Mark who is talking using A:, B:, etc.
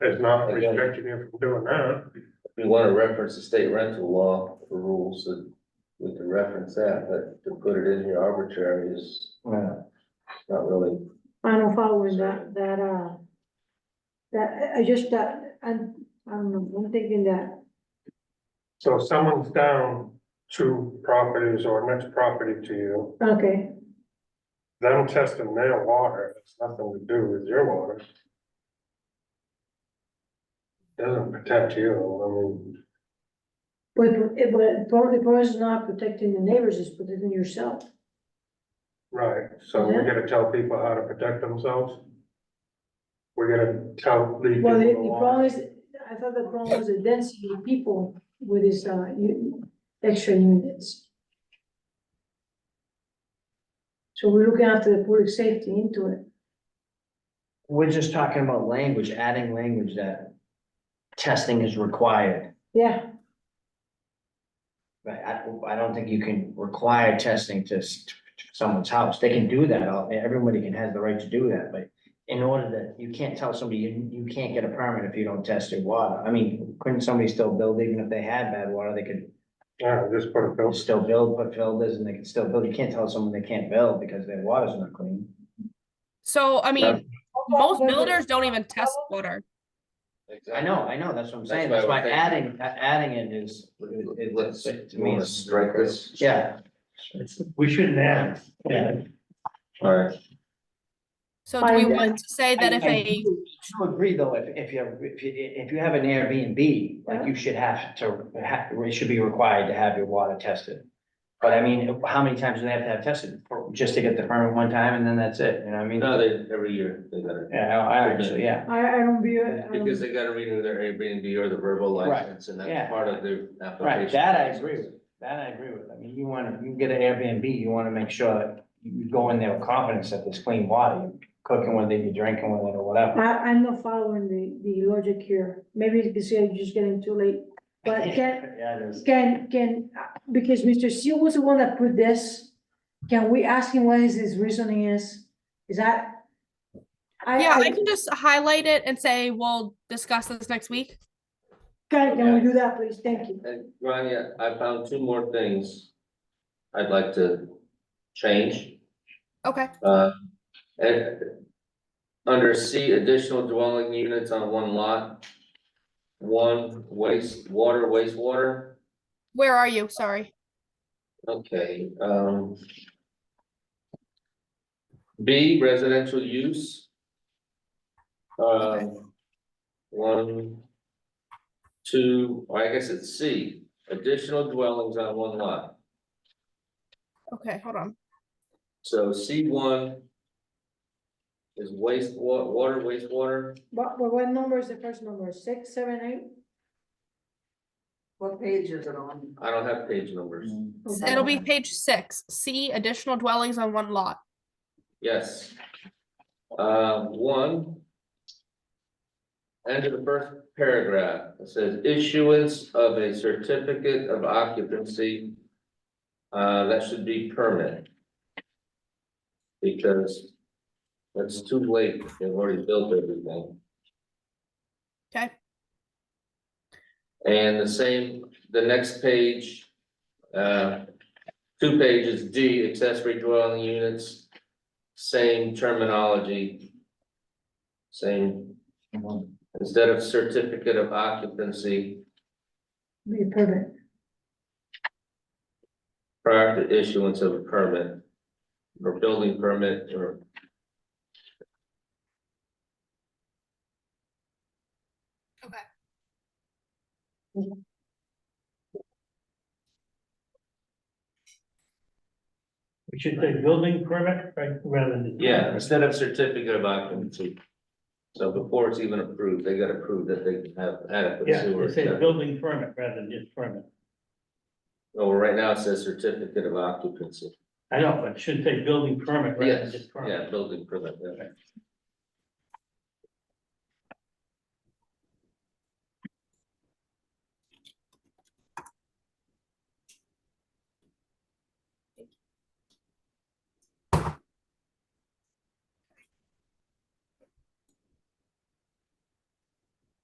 A: It's not restricting you from doing that.
B: we wanna reference the state rental law for rules that we can reference that, but to put it in here arbitrary is
C: Well,
B: not really.
D: I don't follow in that, that, uh, that, I- I just, that, I'm, I don't know, I'm thinking that,
A: So if someone's down two properties or next property to you,
D: okay,
A: them testing their water, it's nothing to do with your water. Doesn't protect you,
D: but, it- but part of the problem is not protecting the neighbors, it's protecting yourself.
A: I mean, right, so we
D: Yeah.
A: gotta tell people how to protect themselves. We gotta tell, lead people
D: Well, the, the
A: along.
D: problem is, I thought the problem was the density of people with this, uh, u- extra units. So we're looking after the public safety into it.
C: we're just talking about language, adding language that testing is required.
D: Yeah,
C: But I, I don't think you can require testing to s- to someone's house. They can do that. all- Everybody can, has the right to do that, but in order that, you can't tell somebody, you, you can't get a permit if you don't test your water. I mean, couldn't somebody still build, even if they had bad water, they could
A: Yeah, just put a filter.
C: still build, put filters and they can still build. You can't tell someone they can't build because their water's not clean.
E: So, I
B: Yeah.
E: mean, most builders don't even test water.
C: I know, I know, that's what I'm saying,
B: That's
C: that's
B: why I
C: why
B: was
C: adding, a- adding it is, it-
B: Let's,
C: it's,
B: to me,
C: to me,
B: let's
C: it's,
B: strike this.
C: yeah.
F: We shouldn't add. Yeah.
B: All right,
E: So do we
D: I-
E: want to say that
C: I-
E: if
C: I
E: a,
C: do- do agree, though, if, if you, if you, if you have an Airbnb, like, you should have to, ha- it should be required to have your water tested. But I mean, how many times do they have to have tested, For- just to get the permit one time and then that's it, you know what I mean?
B: no, they, every year they gotta,
C: Yeah, I, I actually, yeah,
D: I, I don't be, I don't-
B: because they gotta renew their Airbnb or the verbal
C: Um, Right,
B: license, and that's
C: yeah.
B: part of their application.
C: right, that I agree with, that I agree with, I mean, you wanna, you get an Airbnb, you wanna make sure that you go in there with confidence that there's clean water, you're cooking with it, you're drinking with it, or whatever.
D: I, I'm not following the, the logic here. Maybe you can say I'm just getting too late. But can,
C: Yeah, it is.
D: can, can, because Mr. Seal was the one that put this, can we ask him what his, his reasoning is? Is that?
E: yeah, I can just highlight it and say, we'll discuss this next week.
D: Can, can we do that, please? Thank you.
B: And Rania, I found two more things I'd like to change.
E: Okay.
B: Uh, and under C, additional dwelling units on one lot. One waste, water, wastewater,
E: Where are you? Sorry.
B: okay, um. B, residential use. Um, one, two, or I guess it's C, additional dwellings on one lot.
E: Okay, hold on.
B: So C one. Is waste wa- water, wastewater,
D: What, what, what number is the first number? Six, seven, eight?
G: What page is it on?
B: I don't have page numbers,
E: S- It'll be page six, C, additional dwellings on one lot.
B: yes. Uh, one. End of the first paragraph, it says issuance of a certificate of occupancy. Uh, that should be permanent. Because. That's too late, they've already built everything.
E: Okay.
B: And the same, the next page, uh, two pages, D, accessory dwelling units, same terminology. Same, instead of certificate of occupancy
D: Be perfect.
B: prior to issuance of a permit or building permit or.
F: We should say building permit, right, rather than.
B: Yeah, instead of certificate of occupancy. So before it's even approved, they gotta prove that they have adequate
F: Yeah,
B: sewer.
F: it says building permit rather than just permit.
B: No, right now it says certificate of occupancy.
F: I know, but it should say building permit rather than
B: Yes,
F: just permit.
B: yeah, building permit, yeah.